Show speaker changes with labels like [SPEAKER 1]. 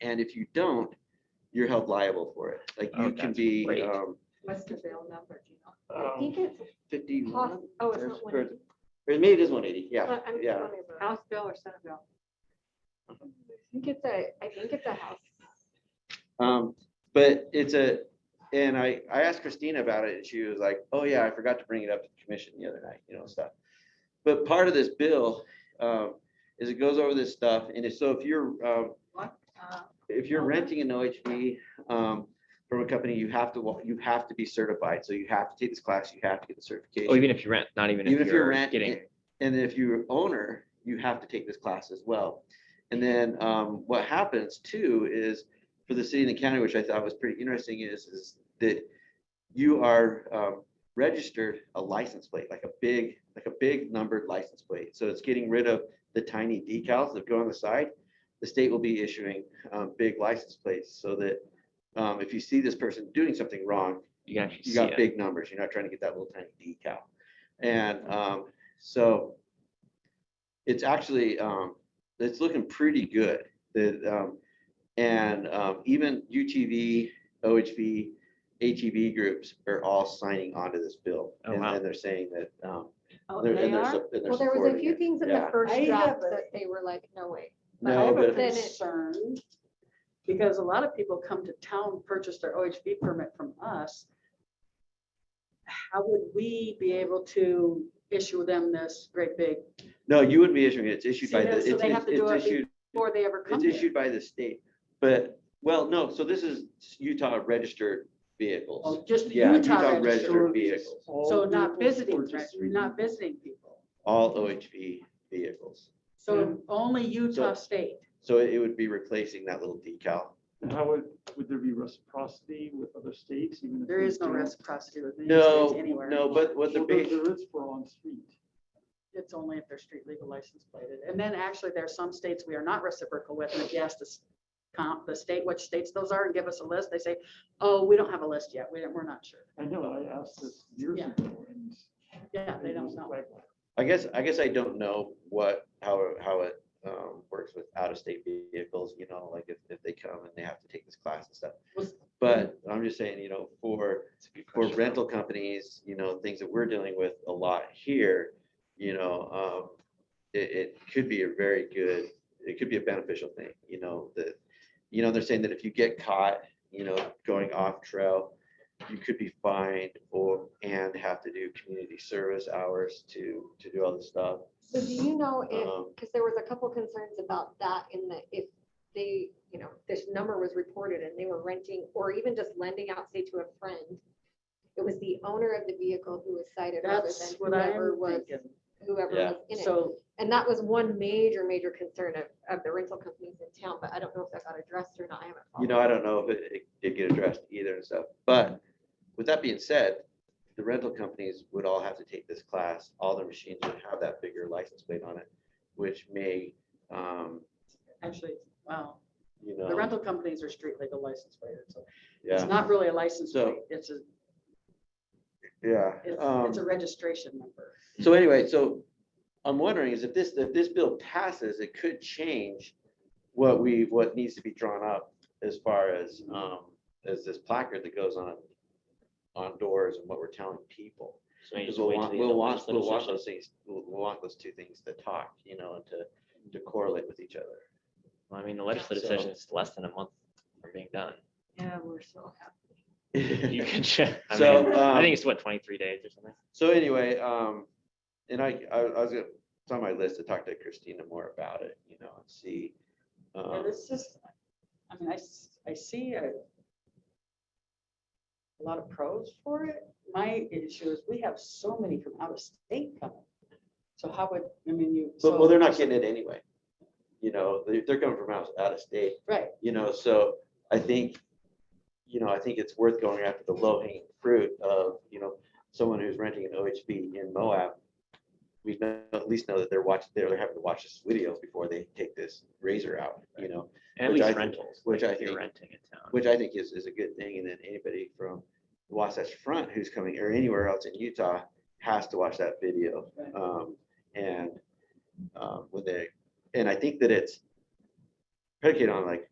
[SPEAKER 1] and if you don't, you're held liable for it. Like
[SPEAKER 2] Oh,
[SPEAKER 1] you can
[SPEAKER 2] that's
[SPEAKER 1] be
[SPEAKER 2] great.
[SPEAKER 1] um,
[SPEAKER 3] What's the bill number, do you know?
[SPEAKER 4] Um,
[SPEAKER 5] I think it's,
[SPEAKER 1] fifty-one.
[SPEAKER 5] poss- oh, it's
[SPEAKER 1] Um, there's-
[SPEAKER 5] not one.
[SPEAKER 1] Or maybe it is one eighty, yeah,
[SPEAKER 5] I'm
[SPEAKER 1] yeah.
[SPEAKER 5] wondering about it.
[SPEAKER 3] House bill or Senate bill?
[SPEAKER 5] I think it's a, I think it's a house.
[SPEAKER 1] Um, but it's a, and I, I asked Christina about it and she was like, oh yeah, I forgot to bring it up to the commission the other night, you know, stuff. But part of this bill, um, is it goes over this stuff and it's- so if you're, um,
[SPEAKER 3] What? Uh,
[SPEAKER 1] if you're renting an OHV, um, from a company, you have to, wa- you have to be certified. So you have to take this class, you have to get the
[SPEAKER 2] Oh,
[SPEAKER 1] certification.
[SPEAKER 2] even if you rent, not even
[SPEAKER 1] Even
[SPEAKER 2] if
[SPEAKER 1] if you're
[SPEAKER 2] you're
[SPEAKER 1] rent,
[SPEAKER 2] getting,
[SPEAKER 1] and and if you're owner, you have to take this class as well. And then um, what happens too is for the city and the county, which I thought was pretty interesting, is is that you are um, registered a license plate, like a big, like a big numbered license plate. So it's getting rid of the tiny decals that go on the side. The state will be issuing um, big license plates so that um, if you see this person doing something wrong,
[SPEAKER 2] you can actually
[SPEAKER 1] you
[SPEAKER 2] see
[SPEAKER 1] got
[SPEAKER 2] it. Mm-hmm.
[SPEAKER 1] big numbers. You're not trying to get that little tiny decal. And um, so it's actually, um, it's looking pretty good. The, um, and um, even UTV, OHV, ATV E groups are all signing onto this bill.
[SPEAKER 2] Oh,
[SPEAKER 1] And
[SPEAKER 2] wow.
[SPEAKER 1] and they're saying that, um,
[SPEAKER 3] Oh,
[SPEAKER 1] they're,
[SPEAKER 3] they
[SPEAKER 1] and they're,
[SPEAKER 3] are?
[SPEAKER 1] sup- and they're
[SPEAKER 5] Well, there was a
[SPEAKER 1] supporting
[SPEAKER 5] few
[SPEAKER 1] it.
[SPEAKER 5] things in the
[SPEAKER 1] Yeah.
[SPEAKER 5] first
[SPEAKER 3] I
[SPEAKER 5] draft
[SPEAKER 3] have a-
[SPEAKER 5] that they were like, no way.
[SPEAKER 3] But I
[SPEAKER 1] No,
[SPEAKER 3] have a
[SPEAKER 1] but
[SPEAKER 5] Then it-
[SPEAKER 3] concern, because a lot of people come to town, purchase their OHV permit from us. How would we be able to issue them this great big,
[SPEAKER 1] no, you wouldn't be issuing it. It's issued
[SPEAKER 3] See,
[SPEAKER 1] by
[SPEAKER 3] that-
[SPEAKER 1] the,
[SPEAKER 3] so
[SPEAKER 1] it's
[SPEAKER 3] they have
[SPEAKER 1] it's
[SPEAKER 3] to do it
[SPEAKER 1] it's issued,
[SPEAKER 3] before they ever come
[SPEAKER 1] it's
[SPEAKER 3] here?
[SPEAKER 1] issued by the state. But, well, no, so this is Utah registered vehicles.
[SPEAKER 3] Oh, Just the
[SPEAKER 1] Yeah, Utah
[SPEAKER 3] Utah registered,
[SPEAKER 1] registered vehicles,
[SPEAKER 3] so not visiting, reg- not visiting people,
[SPEAKER 1] all OHV vehicles.
[SPEAKER 3] so only Utah
[SPEAKER 1] So-
[SPEAKER 3] state.
[SPEAKER 1] So it would be replacing that little decal.
[SPEAKER 4] And how would, would there be reciprocity with other states? even if
[SPEAKER 3] There
[SPEAKER 4] they
[SPEAKER 3] is no
[SPEAKER 4] don't-
[SPEAKER 3] reciprocity with any states
[SPEAKER 1] No,
[SPEAKER 3] anywhere.
[SPEAKER 1] no, but what the
[SPEAKER 4] Well, there-
[SPEAKER 1] big,
[SPEAKER 4] There is for on street.
[SPEAKER 3] It's only if they're street legal license plated. And then actually there are some states we are not reciprocal with. And if you ask the s- comp, the state, which states those are and give us a list, they say, oh, we don't have a list yet. We, don't- we're not sure.
[SPEAKER 4] I know, I asked this years
[SPEAKER 3] Yeah.
[SPEAKER 4] ago and.
[SPEAKER 3] Yeah, they
[SPEAKER 4] it
[SPEAKER 3] don't
[SPEAKER 4] was
[SPEAKER 3] know.
[SPEAKER 4] like,
[SPEAKER 1] I guess, I guess I don't know what, how, how it um, works with out-of-state vehicles, you know, like if, if they come and they have to take this class and stuff.
[SPEAKER 3] Was-
[SPEAKER 1] But I'm just saying, you know, for,
[SPEAKER 2] It's a good
[SPEAKER 1] for
[SPEAKER 2] question.
[SPEAKER 1] rental companies, you know, things that we're dealing with a lot here, you know, um, it, it could be a very good, it could be a beneficial thing, you know, that, you know, they're saying that if you get caught, you know, going off trail, you could be fined or, and have to do community service hours to, to do all this stuff.
[SPEAKER 5] So do you know if,
[SPEAKER 1] Um,
[SPEAKER 5] because there was a couple concerns about that in the, if they, you know, this number was reported and they were renting or even just lending out, say, to a friend. It was the owner of the vehicle who was cited rather
[SPEAKER 3] That's
[SPEAKER 5] than
[SPEAKER 3] what I'm
[SPEAKER 5] whoever was,
[SPEAKER 3] thinking.
[SPEAKER 5] whoever
[SPEAKER 1] Yeah.
[SPEAKER 5] was in it.
[SPEAKER 3] So
[SPEAKER 5] And that was one major, major concern of, of the rental companies in town, but I don't know if that got addressed or not. I haven't.
[SPEAKER 1] You
[SPEAKER 5] followed
[SPEAKER 1] know, I don't know if it, it did get addressed either and stuff, but with that being said, the rental companies would all have to take this class, all their machines would have that bigger license plate on it, which may, um,
[SPEAKER 3] actually, wow,
[SPEAKER 1] you
[SPEAKER 3] the
[SPEAKER 1] know,
[SPEAKER 3] rental companies are street legal license plated. So it's
[SPEAKER 1] yeah,
[SPEAKER 3] not really a license
[SPEAKER 1] So-
[SPEAKER 3] plate. It's a,
[SPEAKER 1] yeah.
[SPEAKER 3] it's,
[SPEAKER 1] um,
[SPEAKER 3] it's a registration number.
[SPEAKER 1] So anyway, so I'm wondering is if this, if this bill passes, it could change what we, what needs to be drawn up as far as, um, as this placard that goes on, on doors and what we're telling people.
[SPEAKER 6] So you
[SPEAKER 1] Because
[SPEAKER 6] just
[SPEAKER 1] we'll
[SPEAKER 6] wait
[SPEAKER 1] want,
[SPEAKER 6] till
[SPEAKER 1] we'll
[SPEAKER 6] the
[SPEAKER 1] want, we'll want
[SPEAKER 6] legislative
[SPEAKER 1] those things, we'll we'll want those two things to talk, you know, and to, to correlate with each other.
[SPEAKER 2] Well, I mean, the legislative
[SPEAKER 1] So-
[SPEAKER 2] session is less than a month from being done.
[SPEAKER 3] Yeah, we're so happy.
[SPEAKER 2] You can check. I
[SPEAKER 1] So,
[SPEAKER 2] mean, I
[SPEAKER 1] um,
[SPEAKER 2] think it's what, twenty-three days or something?
[SPEAKER 1] So anyway, um, and I, I, I was, gonna- it's on my list to talk to Christina more about it, you know, and see.
[SPEAKER 3] Yeah,
[SPEAKER 1] um,
[SPEAKER 3] this is, I mean, I, s- I see a a lot of pros for it. My issue is we have so many from out of state coming. So how would, I mean, you.
[SPEAKER 1] But,
[SPEAKER 3] so-
[SPEAKER 1] well, they're not getting it anyway. You know, they, they're coming from out, out of state,
[SPEAKER 3] Right,
[SPEAKER 1] you know, so I think, you know, I think it's worth going after the low hanging fruit of, you know, someone who's renting an OHV in Moab. We know, at least know that they're watching, they're having to watch this video before they take this razor out, you know,
[SPEAKER 2] At
[SPEAKER 1] Which I
[SPEAKER 2] least
[SPEAKER 1] think-
[SPEAKER 2] rentals.
[SPEAKER 1] which
[SPEAKER 2] like,
[SPEAKER 1] I
[SPEAKER 2] if You're
[SPEAKER 1] think-
[SPEAKER 2] renting in town.
[SPEAKER 1] which I think is, is a good thing. And then anybody from Wasatch Front who's coming or anywhere else in Utah has to watch that video.
[SPEAKER 3] Right.
[SPEAKER 1] Um, and, um, when they, and I think that it's predicated on like,